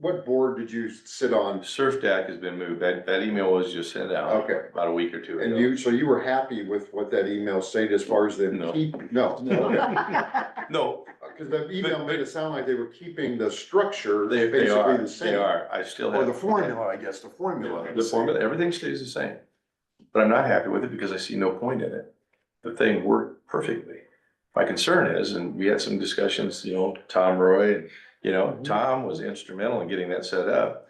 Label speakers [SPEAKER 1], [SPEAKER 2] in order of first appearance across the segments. [SPEAKER 1] what board did you sit on?
[SPEAKER 2] Surf Deck has been moved. That, that email was just sent out
[SPEAKER 1] Okay,
[SPEAKER 2] about a week or two
[SPEAKER 1] and
[SPEAKER 2] ago.
[SPEAKER 1] you, so you were happy with what that email stated as far as them
[SPEAKER 2] No.
[SPEAKER 1] keep, no? Okay.
[SPEAKER 2] No,
[SPEAKER 1] Cause the email
[SPEAKER 2] But-
[SPEAKER 1] made it sound like they were keeping the structure
[SPEAKER 2] they, they
[SPEAKER 1] basically
[SPEAKER 2] are,
[SPEAKER 1] the
[SPEAKER 2] they
[SPEAKER 1] same.
[SPEAKER 2] are. I still have.
[SPEAKER 1] Or the formula, I guess, the formula.
[SPEAKER 2] The formula, everything stays the same. But I'm not happy with it because I see no point in it. The thing worked perfectly. My concern is, and we had some discussions, you know, Tom Roy, you know, Tom was instrumental in getting that set up.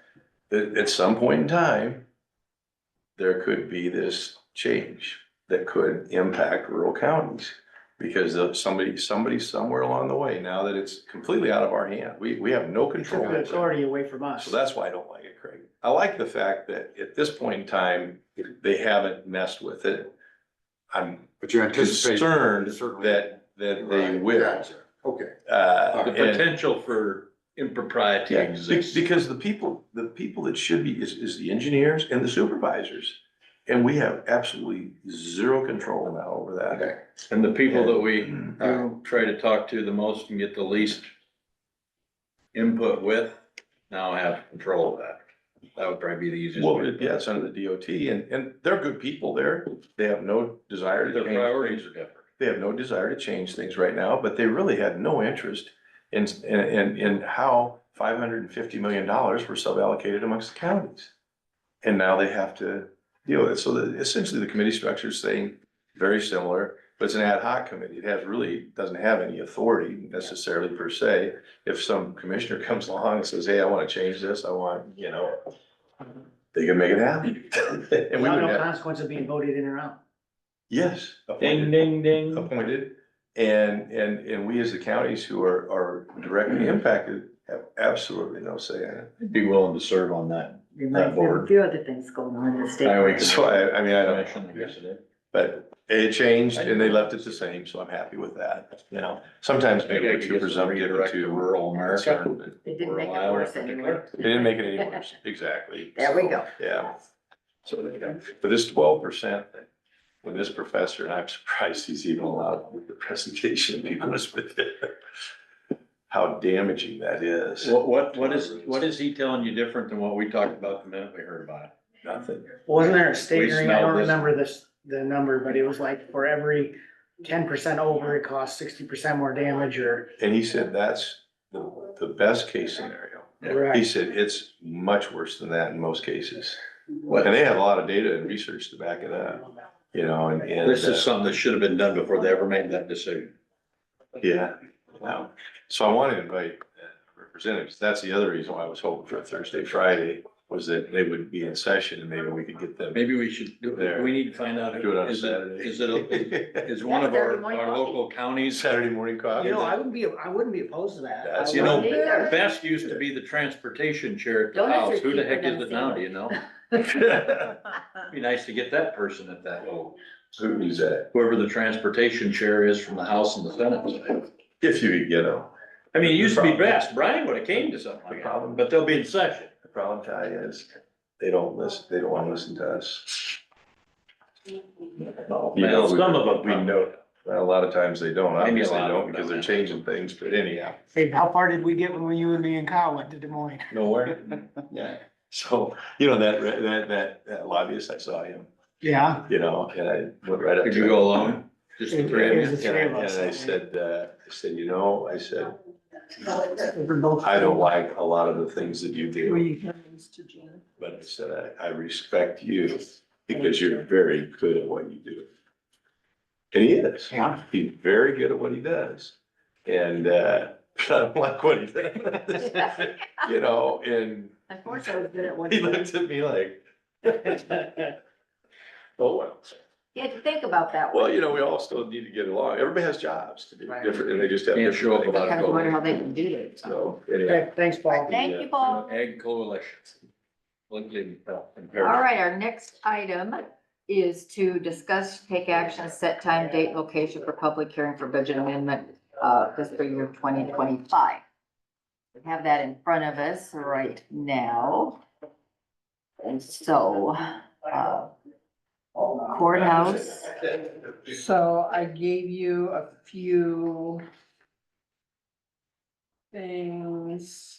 [SPEAKER 2] That at some point in time, there could be this change that could impact rural counties. Because of somebody, somebody somewhere along the way, now that it's completely out of our hand, we, we have no control. over it.
[SPEAKER 3] authority away from us.
[SPEAKER 2] So that's why I don't like it, Craig. I like the fact that at this point in time, they haven't messed with it. I'm
[SPEAKER 1] But you anticipate.
[SPEAKER 2] concerned
[SPEAKER 1] certainly-
[SPEAKER 2] that, that they
[SPEAKER 1] Right,
[SPEAKER 2] will.
[SPEAKER 1] gotcha. Okay,
[SPEAKER 2] Uh,
[SPEAKER 4] The
[SPEAKER 2] and-
[SPEAKER 4] potential for impropriety
[SPEAKER 2] yeah, be-
[SPEAKER 4] exists.
[SPEAKER 2] because the people, the people that should be is, is the engineers and the supervisors. And we have absolutely zero control now over that.
[SPEAKER 1] okay.
[SPEAKER 4] And the people that we uh,
[SPEAKER 2] And-
[SPEAKER 1] All right.
[SPEAKER 4] try to talk to the most and get the least input with now have control of that. That would probably be the easiest.
[SPEAKER 2] Well,
[SPEAKER 4] way to
[SPEAKER 2] it-
[SPEAKER 4] put it.
[SPEAKER 2] yeah, it's under the DOT and, and they're good people there. They have no desire to
[SPEAKER 4] Their
[SPEAKER 2] change.
[SPEAKER 4] priorities are different.
[SPEAKER 2] they have no desire to change things right now, but they really had no interest in, in, in, in how five hundred and fifty million dollars were suballocated amongst the counties. And now they have to deal with it. So the- essentially, the committee structure is staying very similar, but it's an ad hoc committee. It has really, doesn't have any authority necessarily per se. If some commissioner comes along and says, hey, I want to change this, I want, you know, they can make it happen. And we
[SPEAKER 3] Without
[SPEAKER 2] would
[SPEAKER 3] no
[SPEAKER 2] have,
[SPEAKER 3] consequence of being voted in or out.
[SPEAKER 2] yes.
[SPEAKER 4] Ding, ding, ding.
[SPEAKER 2] appointed. And, and, and we as the counties who are, are directly impacted have absolutely no say in it.
[SPEAKER 4] I'd Be willing to serve on that.
[SPEAKER 5] We might have a
[SPEAKER 4] board.
[SPEAKER 5] few other things going on in the state.
[SPEAKER 4] Highway
[SPEAKER 2] So I, I mean, I don't,
[SPEAKER 4] commission, I guess it is.
[SPEAKER 2] but it changed and they left it the same, so I'm happy with that, you know. Sometimes maybe
[SPEAKER 4] Maybe I
[SPEAKER 2] we're
[SPEAKER 4] could
[SPEAKER 2] too
[SPEAKER 4] get some
[SPEAKER 2] presumptive or
[SPEAKER 4] redirect to
[SPEAKER 2] too
[SPEAKER 4] rural America.
[SPEAKER 2] concerned, but
[SPEAKER 5] They didn't
[SPEAKER 4] We're
[SPEAKER 5] make it
[SPEAKER 4] allowed
[SPEAKER 5] worse
[SPEAKER 4] in
[SPEAKER 5] anyway.
[SPEAKER 4] particular.
[SPEAKER 2] They didn't make it any worse, exactly.
[SPEAKER 5] There we go.
[SPEAKER 2] Yeah. So there you go. But this twelve percent, with this professor, and I'm surprised he's even allowed with the presentation, to be honest with you. How damaging that is.
[SPEAKER 4] What, what, what is, what is he telling you different than what we talked about the minute we heard about it?
[SPEAKER 2] Nothing.
[SPEAKER 3] Wasn't there a state
[SPEAKER 4] We
[SPEAKER 3] hearing? I
[SPEAKER 4] smell
[SPEAKER 3] don't
[SPEAKER 4] this.
[SPEAKER 3] remember this, the number, but it was like for every ten percent over, it costs sixty percent more damage or.
[SPEAKER 2] And he said, that's the, the best case scenario.
[SPEAKER 4] Yeah.
[SPEAKER 2] He
[SPEAKER 3] Right.
[SPEAKER 2] said, it's much worse than that in most cases.
[SPEAKER 4] What-
[SPEAKER 2] And they have a lot of data and research to back it up, you know, and, and.
[SPEAKER 4] This
[SPEAKER 2] uh,
[SPEAKER 4] is something that should have been done before they ever made that decision.
[SPEAKER 2] Yeah, wow. So I want to invite uh, representatives. That's the other reason why I was hoping for Thursday, Friday, was that they would be in session and maybe we could get them.
[SPEAKER 4] Maybe we should do,
[SPEAKER 2] There.
[SPEAKER 4] we need to find out.
[SPEAKER 2] Do it on a
[SPEAKER 4] is
[SPEAKER 2] Saturday.
[SPEAKER 4] Is it, is one of our, our local counties,
[SPEAKER 2] Saturday morning coffee.
[SPEAKER 3] You know, I wouldn't be, I wouldn't be opposed to that.
[SPEAKER 2] That's-
[SPEAKER 3] I
[SPEAKER 4] you know,
[SPEAKER 3] wouldn't either.
[SPEAKER 4] best used to be the transportation chair at the
[SPEAKER 5] Donuts
[SPEAKER 4] house.
[SPEAKER 5] are
[SPEAKER 4] Who the
[SPEAKER 5] cheaper
[SPEAKER 4] heck
[SPEAKER 5] than
[SPEAKER 4] is it
[SPEAKER 5] a
[SPEAKER 4] now, do
[SPEAKER 5] sandwich.
[SPEAKER 4] you know? Be nice to get that person at that little,
[SPEAKER 2] Who's that?
[SPEAKER 4] whoever the transportation chair is from the House and the Senate. side.
[SPEAKER 2] If you could get them.
[SPEAKER 4] I mean, it used to be best. Brian would have came to something like that, but they'll be in session.
[SPEAKER 2] The problem, Ty, is they don't listen, they don't want to listen to us. You know,
[SPEAKER 4] Well,
[SPEAKER 2] we-
[SPEAKER 4] some of them
[SPEAKER 2] We know, a lot of times they don't,
[SPEAKER 4] Maybe a
[SPEAKER 2] obviously
[SPEAKER 4] lot
[SPEAKER 2] they
[SPEAKER 4] of
[SPEAKER 2] don't,
[SPEAKER 4] them
[SPEAKER 2] because
[SPEAKER 4] don't.
[SPEAKER 2] they're changing things, but anyhow.
[SPEAKER 3] Hey, how far did we get when you and me and Kyle went to Des Moines?
[SPEAKER 2] Nowhere. Yeah, so, you know, that, that, that, that lobbyist, I saw him,
[SPEAKER 3] Yeah,
[SPEAKER 2] you know, and I went right up to him.
[SPEAKER 4] Could you go alone? Just the three of
[SPEAKER 3] It was
[SPEAKER 4] you?
[SPEAKER 3] the three of
[SPEAKER 2] And I-
[SPEAKER 3] us.
[SPEAKER 2] And I said, uh, I said, you know, I said,
[SPEAKER 3] we're both-
[SPEAKER 2] I don't like a lot of the things that you do,
[SPEAKER 3] We-
[SPEAKER 2] but I said, I, I respect you because you're very good at what you do. And he is.
[SPEAKER 3] Yeah.
[SPEAKER 2] He's very good at what he does. And, uh, but I don't like what he does. You know, and
[SPEAKER 5] Unfortunately, I was good at one.
[SPEAKER 2] he looked at me like, oh, well.
[SPEAKER 5] You had to think about that
[SPEAKER 2] Well,
[SPEAKER 5] one.
[SPEAKER 2] you know, we all still need to get along. Everybody has jobs to do
[SPEAKER 3] Right.
[SPEAKER 2] different, and they just have.
[SPEAKER 4] Can't show up
[SPEAKER 2] different
[SPEAKER 4] without
[SPEAKER 2] things.
[SPEAKER 4] a
[SPEAKER 5] Kind of wonder how they can do that.
[SPEAKER 2] So, anyway,
[SPEAKER 3] Okay, Thanks, Paul.
[SPEAKER 5] Thank you, Paul.
[SPEAKER 4] Ag coalition. Lincoln, uh,
[SPEAKER 5] All
[SPEAKER 4] compared.
[SPEAKER 5] right, our next item is to discuss, take action, set time, date, location for public hearing for budget amendment, uh, fiscal year twenty twenty-five. We have that in front of us right now. And so, uh, courthouse,
[SPEAKER 6] So I gave you a few things.